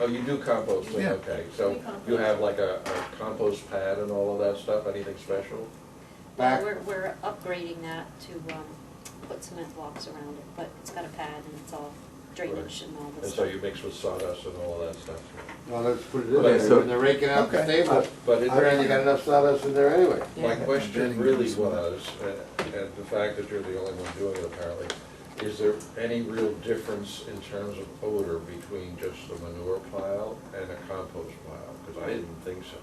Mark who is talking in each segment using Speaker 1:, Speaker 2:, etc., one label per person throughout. Speaker 1: Oh, you do composting,
Speaker 2: Yeah.
Speaker 1: okay, so
Speaker 3: We compost.
Speaker 1: you have like a, a compost pad and all of that stuff, anything special?
Speaker 2: Back-
Speaker 3: We're, we're upgrading that to, um, put cement blocks around it, but it's got a pad and it's all drainage and all
Speaker 1: And
Speaker 3: this
Speaker 1: so
Speaker 3: stuff.
Speaker 1: you mix with sawdust and all of that stuff?
Speaker 2: Well, let's put it in
Speaker 1: Okay,
Speaker 2: there,
Speaker 4: so-
Speaker 2: when they're raking out the
Speaker 5: Okay.
Speaker 2: stable,
Speaker 1: But it-
Speaker 2: I ran, you got enough sawdust in there anyway.
Speaker 1: My
Speaker 5: Yeah.
Speaker 1: question
Speaker 5: Bidding
Speaker 1: really
Speaker 5: comes from that.
Speaker 1: was, uh, and the fact that you're the only one doing it apparently, is there any real difference in terms of odor between just a manure pile and a compost pile? Because I didn't think so.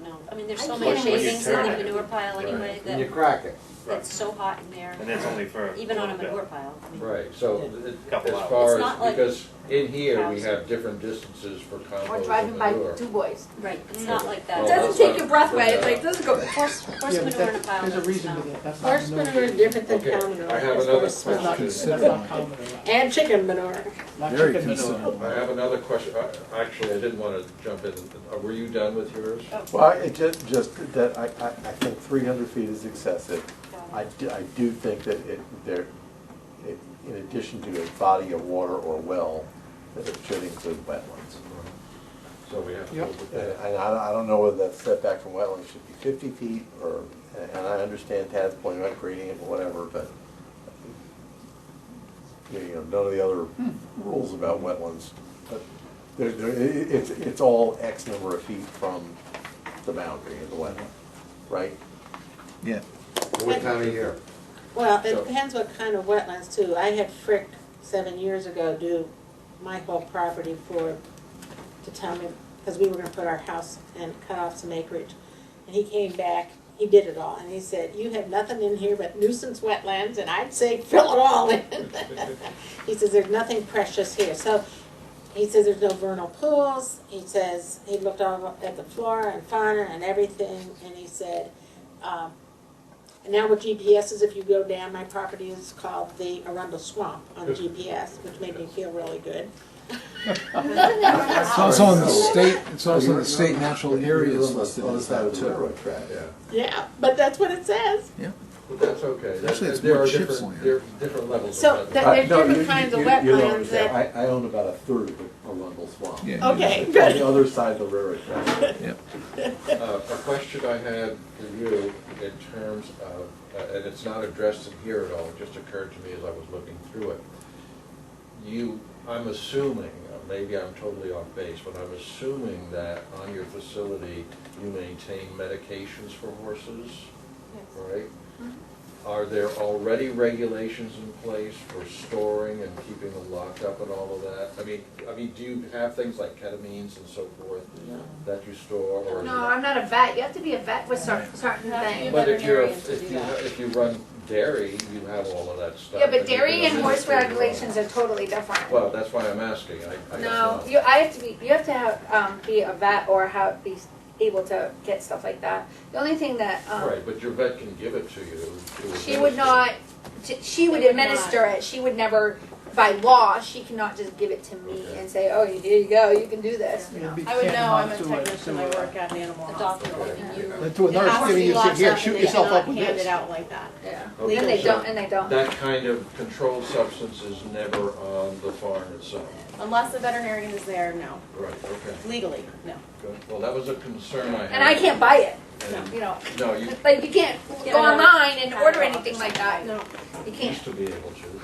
Speaker 3: No, no, I mean, there's so
Speaker 6: I
Speaker 3: many
Speaker 6: can't- When you
Speaker 3: shavings in the
Speaker 6: turn it.
Speaker 3: manure pile anyway
Speaker 1: Right.
Speaker 2: And you
Speaker 3: that,
Speaker 2: crack it.
Speaker 3: that's so hot in there,
Speaker 6: And that's only for.
Speaker 3: even on a
Speaker 6: little bit.
Speaker 3: manure pile. I mean,
Speaker 1: Right, so it-
Speaker 6: Couple
Speaker 1: as
Speaker 6: hours.
Speaker 1: far
Speaker 3: It's not
Speaker 1: as,
Speaker 3: like
Speaker 1: because in here, we
Speaker 3: house.
Speaker 1: have different distances for
Speaker 7: Or
Speaker 1: compost and
Speaker 7: driving by
Speaker 1: manure.
Speaker 7: two boys.
Speaker 3: Right, it's not like that.
Speaker 1: Oh,
Speaker 7: It
Speaker 1: that's
Speaker 7: doesn't take
Speaker 1: not-
Speaker 7: your breath away, it's
Speaker 1: okay.
Speaker 7: like, doesn't go.
Speaker 3: Horse, horse
Speaker 5: Yeah, but
Speaker 3: manure in a
Speaker 5: that-
Speaker 3: pile
Speaker 5: There's a
Speaker 3: doesn't
Speaker 5: reason
Speaker 3: smell.
Speaker 5: to that, that's not
Speaker 8: Horse manure is
Speaker 5: known.
Speaker 8: different than
Speaker 1: Okay,
Speaker 8: cow manure.
Speaker 1: I have
Speaker 8: It's
Speaker 1: another
Speaker 8: worse for
Speaker 5: That's not
Speaker 1: question.
Speaker 8: lungs.
Speaker 5: considered not common at all.
Speaker 8: And chicken manure.
Speaker 5: Not
Speaker 4: Very
Speaker 5: chicken
Speaker 4: considerable.
Speaker 5: manure.
Speaker 1: I have another question, I- actually, I didn't want to jump in, Uh, were you done with yours?
Speaker 4: Well, it just, just that I, I, I think three hundred feet is excessive. I do, I do think that it, there, it- in addition to a body of water or well, that it should include wetlands.
Speaker 7: Oh.
Speaker 1: So we have to.
Speaker 5: Yep. Uh,
Speaker 1: go with
Speaker 4: And
Speaker 1: that.
Speaker 4: and I, I don't know whether that setback from wetlands should be fifty feet or, and I understand Tad's point about grading it, whatever, but you know, none of the other
Speaker 8: Hmm.
Speaker 4: rules about wetlands, but there, there, i- i- it's, it's all X number of feet from the boundary of the wetland, right?
Speaker 5: Yeah.
Speaker 2: What time of year?
Speaker 8: Well, it
Speaker 1: So-
Speaker 8: depends what kind of wetlands too. I had Frick seven years ago do my whole property for, to tell me, because we were gonna put our house and cut off some acreage. And he came back, he did it all, and he said, you have nothing in here but nuisance wetlands, and I'd say fill it all in. He says, there's nothing precious here, so he says there's no vernal pools, he says, he looked all at the flora and fauna and everything, and he said, um, and now with GPS is if you go down, my property is called the Arundel Swamp on GPS, which made me feel really good.
Speaker 5: It's also on the state, it's also on
Speaker 4: You're-
Speaker 5: the state natural areas
Speaker 4: You're on the
Speaker 5: listed
Speaker 4: other
Speaker 5: as
Speaker 4: side
Speaker 5: that
Speaker 4: of the
Speaker 5: too.
Speaker 4: railroad track.
Speaker 1: Yeah.
Speaker 8: Yeah, but that's what it says.
Speaker 1: But that's okay. That-
Speaker 5: Actually, it's
Speaker 1: there
Speaker 5: more
Speaker 1: are
Speaker 5: chips
Speaker 1: different-
Speaker 5: on it.
Speaker 1: There are different levels. of
Speaker 8: So
Speaker 1: wetlands.
Speaker 8: that-
Speaker 4: Uh,
Speaker 8: there's
Speaker 4: no,
Speaker 8: different
Speaker 4: you-
Speaker 8: kinds of
Speaker 4: you- you don't
Speaker 8: wetlands
Speaker 4: understand.
Speaker 8: that-
Speaker 4: I, I own about a third of the Arundel Swamp.
Speaker 5: Yeah.
Speaker 8: Okay,
Speaker 4: On
Speaker 8: good.
Speaker 4: the other side of the railroad track.
Speaker 1: Uh, A question I had for you in terms of, uh, and it's not addressed in here at all, it just occurred to me as I was looking through it. You, I'm assuming, uh, maybe I'm totally off base, but I'm assuming that on your facility, you maintain medications for horses, right? Are there already regulations in place for storing and keeping them locked up and all of that? I mean, I mean, do you have things like ketamines and so forth that you store or? is it-
Speaker 7: No, I'm not a vet, you have to be a vet with cer- certain
Speaker 3: Have to be a
Speaker 7: things.
Speaker 1: But if you're,
Speaker 3: veterinarian to
Speaker 1: if
Speaker 3: do
Speaker 1: you,
Speaker 3: that.
Speaker 1: if you run dairy, you have all of that stuff. that
Speaker 7: Yeah, but
Speaker 1: you can
Speaker 7: dairy and horse
Speaker 1: administer your own.
Speaker 7: regulations are totally different.
Speaker 1: Well, that's why I'm asking, I, I don't know.
Speaker 7: No, you, I have to be, you have to have, um, be a vet or how, be able to get stuff like that. The only thing that, um,
Speaker 1: Right, but your vet can give it to you. to
Speaker 7: she would
Speaker 1: administer.
Speaker 7: not, she- she would
Speaker 3: They would not.
Speaker 7: administer it, she would never, by law, she cannot just give it to me
Speaker 1: Okay.
Speaker 7: and say, oh, here you go, you can do this, you know.
Speaker 5: It'd be
Speaker 9: I would know, I'm a
Speaker 5: tantamount to
Speaker 9: technician,
Speaker 5: to
Speaker 9: I
Speaker 5: a-
Speaker 9: work at an animal
Speaker 3: A
Speaker 9: hospital.
Speaker 3: doctor,
Speaker 1: Okay.
Speaker 3: and you,
Speaker 5: To a nurse giving you, say, here, shoot yourself up with
Speaker 9: Hand it
Speaker 5: this.
Speaker 9: out like that.
Speaker 7: Yeah,
Speaker 1: Okay,
Speaker 7: and they
Speaker 1: so
Speaker 7: don't, and they don't.
Speaker 1: That kind of controlled substance is never on the farm itself.
Speaker 9: Unless the veterinarian is there, no.
Speaker 1: Right, okay.
Speaker 9: Legally, no.
Speaker 1: Good. Well, that was a concern I had.
Speaker 7: And I can't buy it,
Speaker 1: And-
Speaker 7: you know,
Speaker 1: No, you
Speaker 7: like, you can't
Speaker 3: Yeah,
Speaker 7: go
Speaker 3: I know.
Speaker 7: online and order anything like that,
Speaker 9: No.
Speaker 7: you can't.
Speaker 1: used to be able to.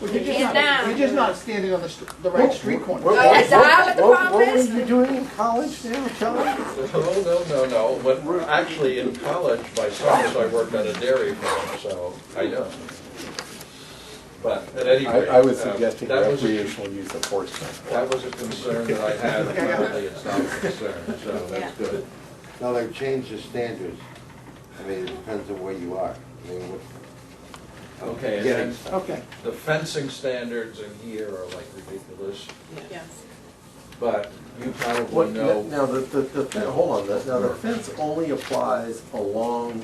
Speaker 5: Well, You're just
Speaker 7: Hand
Speaker 5: not,
Speaker 7: down.
Speaker 5: you're just not standing on the, str- the right street corner.
Speaker 7: Oh, yeah, is that what the problem is?
Speaker 4: What were you doing in college now, Kelly?
Speaker 1: No, no, no, no, when we're actually in college, my summers, I worked at a dairy farm, so I know. But at any
Speaker 4: I,
Speaker 1: rate.
Speaker 4: I was
Speaker 1: um,
Speaker 4: suggesting
Speaker 1: that was a-
Speaker 4: recreational use of horse transport.
Speaker 1: That was a concern that I had, apparently it's not a concern, so
Speaker 9: Yeah.
Speaker 1: that's good.
Speaker 2: Now, they've changed the standards. I mean, it depends on where you are. I mean, what,
Speaker 1: Okay, and
Speaker 2: getting
Speaker 1: then
Speaker 2: stuff.
Speaker 5: Okay.
Speaker 1: the fencing standards in here are like ridiculous,
Speaker 9: Yes.
Speaker 1: but you probably
Speaker 4: What,
Speaker 1: know,
Speaker 4: now, the, the, the, fen- hold on, the- now the fence only applies along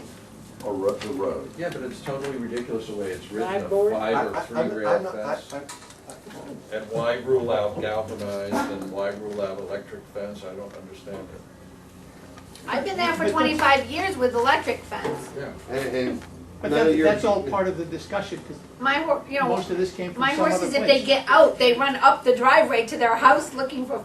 Speaker 4: a ro- the road.
Speaker 1: yeah, but it's totally ridiculous the way it's written, a
Speaker 8: Five-board?
Speaker 4: I-
Speaker 1: five or
Speaker 4: I-
Speaker 1: three
Speaker 4: I'm- I'm
Speaker 1: rail
Speaker 4: not- I-
Speaker 1: fence.
Speaker 4: I-
Speaker 1: And why rule out galvanized and why rule out electric fence, I don't understand it.
Speaker 7: I've been there for twenty-five years with electric fence.
Speaker 1: Yeah.
Speaker 2: And, and
Speaker 5: But
Speaker 2: none of
Speaker 5: that,
Speaker 2: your-
Speaker 5: that's all part of the discussion, because
Speaker 7: My hor, you know,
Speaker 5: most of this came from
Speaker 7: my
Speaker 5: some other place.
Speaker 7: horses, if they get out, they run up the driveway to their house looking for